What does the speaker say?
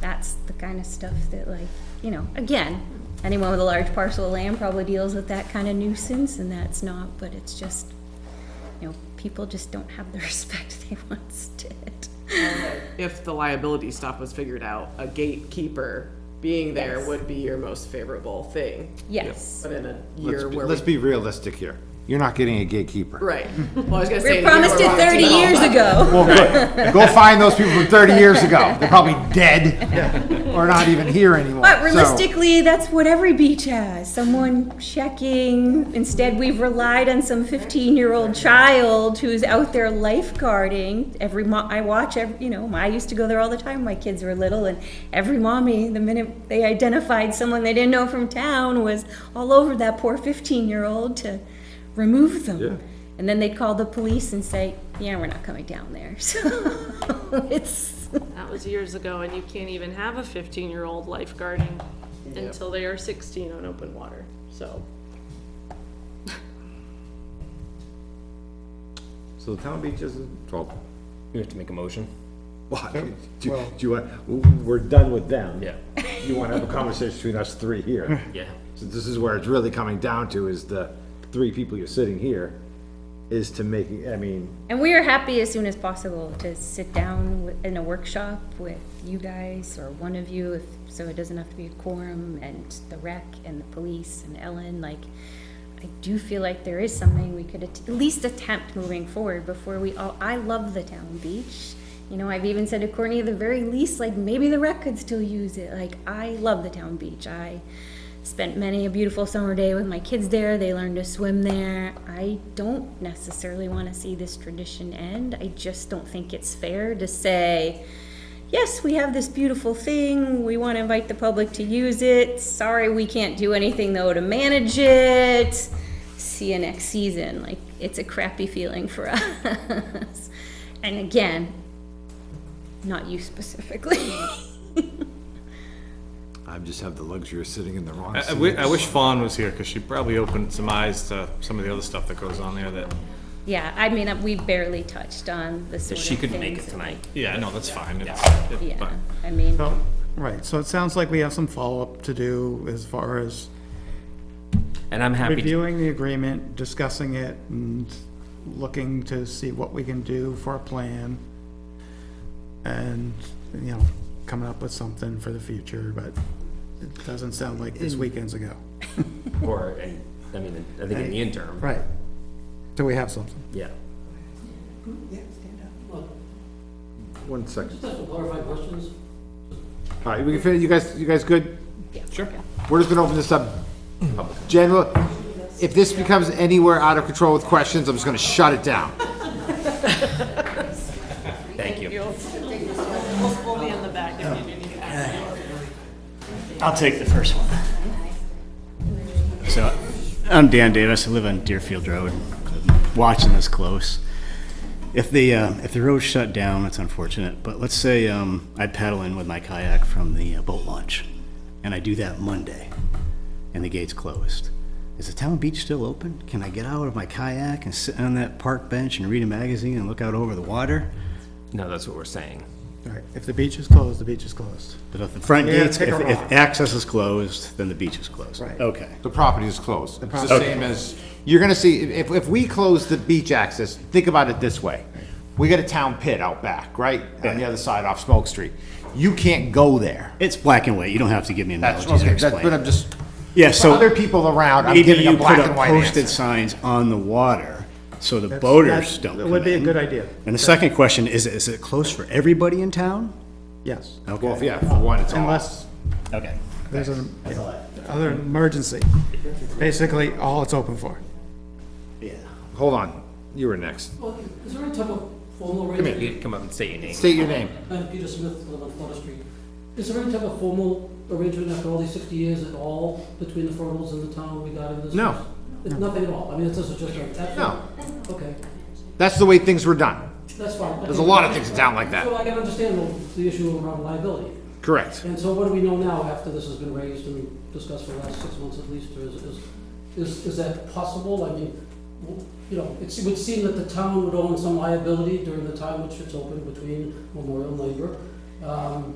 that's the kind of stuff that like, you know, again, anyone with a large parcel of land probably deals with that kind of nuisance and that's not, but it's just, you know, people just don't have the respect they once did. if the liability stuff was figured out, a gatekeeper being there Yes. would be your most favorable thing. Yes. But in a Let's year be, where let's we, be realistic here. You're not getting a gatekeeper. right, well, I was gonna We say. in a year promised it where we're thirty all- years ago. Well, good. Go find those people from 30 years ago. They're probably dead or not even here anymore. But So, realistically, that's what every beach has, someone checking. Instead, we've relied on some fifteen-year-old child who's out there lifeguarding. Every mo, I watch, ev- you know, I used to go there all the time, when my kids were little, and every mommy, the minute they identified someone they didn't know from town, was all over that poor fifteen-year-old to remove them. And then they'd call the police and say, yeah, we're not coming down there, so it's, That was years ago, and you can't even have a fifteen-year-old lifeguarding until they are sixteen on open water, so. So the town beach is in trouble. You have to make a motion? Why? Do, do you want, we're done with them. Yeah. You wanna have a conversation between us three here. Yeah. So this is where it's really coming down to is the three people you're sitting here is to make, I mean, And we are happy as soon as possible to sit down wi- in a workshop with you guys or one of you, if, so it doesn't have to be a quorum and the rec and the police and Ellen, like, I do feel like there is something we could at at least attempt moving forward before we all, I love the town beach. You know, I've even said to Courtney, at the very least, like, maybe the rec could still use it. Like, I love the town beach. I spent many a beautiful summer day with my kids there. They learned to swim there. I don't necessarily want to see this tradition end. I just don't think it's fair to say, yes, we have this beautiful thing. We want to invite the public to use it. Sorry, we can't do anything though to manage it. See you next season. Like, it's a crappy feeling for us. and again, not you specifically. I just have the luxury of sitting in the wrong I- I, seat. wi- I wish Fawn was here, because she probably opened some eyes to some of the other stuff that goes on there that, yeah, I mean, uh, we barely touched on the sort She of couldn't make things it that- tonight. yeah, no, that's fine. It's- it's Yeah, fine. I mean, So, right, so it sounds like we have some follow-up to do as far as And I'm happy, to- reviewing the agreement, discussing it, and looking to see what we can do for a plan. And, you know, coming up with something for the future, but it doesn't sound like this weekend's ago. or, and, I mean, I think in the interim, Right. Do we have something? yeah. One second. Just have some clarifying questions. All right, we can finish, you guys, you guys good? Sure. We're just gonna open this up. General, if this becomes anywhere out of control with questions, I'm just gonna shut it down. Thank you. We'll be in the back if you do need to ask. I'll take the first one. So, I'm Dan Davis, I live on Deerfield Road, watching this close. If the, uh, if the road shut down, it's unfortunate, but let's say, um, I paddle in with my kayak from the uh, boat launch, and I do that Monday, and the gate's closed. Is the town beach still open? Can I get out of my kayak and sit on that park bench and read a magazine and look out over the water? No, that's what we're saying. All right, if the beach is closed, the beach is closed. But if the front Yeah, gates, take if, a if rock. access is closed, then the beach is closed. Right. Okay. The property is closed. It's the same as, you're gonna see, if, if we close the beach access, think about it this way. We got a town pit out back, right? On the other side off Smoke Street. You can't go there. It's black and white, you don't have to give me That's, analogies or okay, explain. that's, but I'm just, Yeah, for so. other people around, I'm Maybe giving a you black put up and white answer. posted signs on the water, so the That's- boaters that- don't that come would be a in. good idea. And the second question, is, is it closed for everybody in town? Yes, Well, Okay, yeah, for one, it's all. unless okay. there's an, other emergency. Basically, all it's open for. Yeah. Hold on, you were next. Well, is there any type of formal arrangement? You come up and say your name. State your name. I'm Peter Smith, I live on Flutter Street. Is there any type of formal arrangement after all these sixty years at all between the Fernals and the town regarding this? No. It's Nothing at all? I mean, it's just a, just a. No, Okay, that's the way things were done. that's fine. There's a lot of things in town like So that. I can understand the- the issue around liability. Correct. And so what do we know now after this has been raised and discussed for the last six months at least, or is, is, is, is that possible? I mean, w- you know, it's- it would seem that the town would own some liability during the time which it's open between Memorial and Labor. Um,